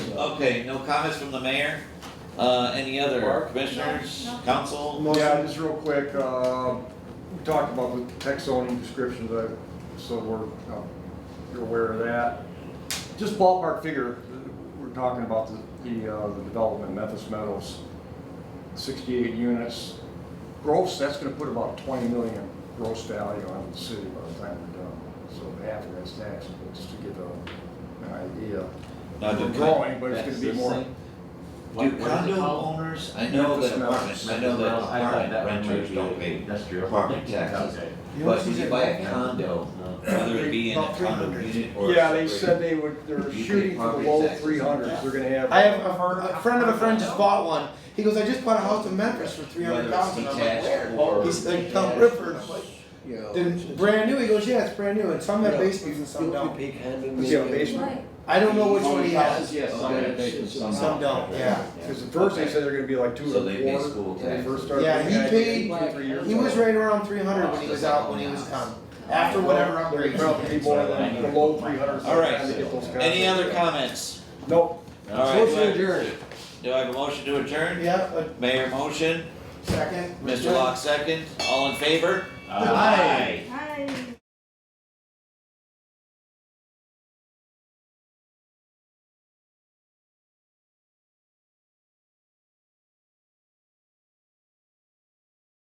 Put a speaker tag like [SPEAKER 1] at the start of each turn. [SPEAKER 1] Okay, no comments from the mayor? Uh, any other commissioners,
[SPEAKER 2] No, no.
[SPEAKER 1] council?
[SPEAKER 3] Yeah, just real quick, uh, we talked about the text zoning descriptions, uh, so we're, uh, you're aware of that. Just ballpark figure, we're talking about the, the, uh, the development, Memphis Meadows, sixty-eight units. Gross, that's gonna put about twenty million gross value on the city by the time we're done, so half of that's taxable, just to give a, an idea.
[SPEAKER 1] Now,
[SPEAKER 3] We're
[SPEAKER 1] do con-
[SPEAKER 3] growing, but it's
[SPEAKER 1] that's
[SPEAKER 3] gonna be
[SPEAKER 1] this
[SPEAKER 3] more-
[SPEAKER 1] thing?
[SPEAKER 4] What-
[SPEAKER 1] Do
[SPEAKER 4] what is it
[SPEAKER 1] condo
[SPEAKER 4] called?
[SPEAKER 1] owners, I know
[SPEAKER 3] Memphis
[SPEAKER 1] that
[SPEAKER 3] Mountain.
[SPEAKER 1] apartment, I know that
[SPEAKER 4] Well, I thought
[SPEAKER 1] apartment
[SPEAKER 4] that one might
[SPEAKER 1] renters
[SPEAKER 4] be
[SPEAKER 1] don't pay
[SPEAKER 4] industrial.
[SPEAKER 1] apartment taxes.
[SPEAKER 4] Okay.
[SPEAKER 1] But when you buy a condo, whether it be in a condo unit or. a
[SPEAKER 3] Yeah, they
[SPEAKER 1] separate-
[SPEAKER 3] said they would, they're
[SPEAKER 1] You pay
[SPEAKER 3] shooting for the
[SPEAKER 1] property
[SPEAKER 3] low
[SPEAKER 1] taxes.
[SPEAKER 3] three hundreds, they're gonna have.
[SPEAKER 5] I have a, a friend of a friend just bought one. He goes, I just bought a house in Memphis for three
[SPEAKER 1] Whether
[SPEAKER 5] hundred
[SPEAKER 1] it's
[SPEAKER 5] thousand. I'm like,
[SPEAKER 1] detached
[SPEAKER 5] where?
[SPEAKER 1] or.
[SPEAKER 5] He's like, Tom Rifford. I'm like,
[SPEAKER 3] You know.
[SPEAKER 5] Then brand new. He goes, yeah, it's brand new. And some have basements and some don't.
[SPEAKER 3] Yeah, basement.
[SPEAKER 2] Right.
[SPEAKER 5] I don't know which one he has.
[SPEAKER 6] Yes, some
[SPEAKER 1] Okay.
[SPEAKER 6] additions, some
[SPEAKER 5] Some
[SPEAKER 6] not.
[SPEAKER 5] don't. Yeah.
[SPEAKER 3] Because at first they said they're gonna be like two
[SPEAKER 1] So
[SPEAKER 3] or
[SPEAKER 1] they pay
[SPEAKER 3] four.
[SPEAKER 1] school
[SPEAKER 3] when they
[SPEAKER 1] taxes.
[SPEAKER 3] first started
[SPEAKER 5] Yeah,
[SPEAKER 3] looking
[SPEAKER 5] he
[SPEAKER 3] at it,
[SPEAKER 5] paid-
[SPEAKER 3] two, three years
[SPEAKER 5] He was
[SPEAKER 3] ago.
[SPEAKER 5] right around three hundred when he was out when he was done. After whatever
[SPEAKER 3] They're
[SPEAKER 5] upgrades.
[SPEAKER 3] probably
[SPEAKER 5] he did.
[SPEAKER 3] more than the low three hundreds.
[SPEAKER 1] All right.
[SPEAKER 3] To get those guys.
[SPEAKER 1] Any other comments?
[SPEAKER 3] Nope.
[SPEAKER 1] All right, do I- Do I have a motion to adjourn?
[SPEAKER 5] Yeah. uh,
[SPEAKER 1] Mayor motion,
[SPEAKER 5] Second.
[SPEAKER 1] Mr. Locke second, all in favor?
[SPEAKER 4] Uh,
[SPEAKER 5] Aye.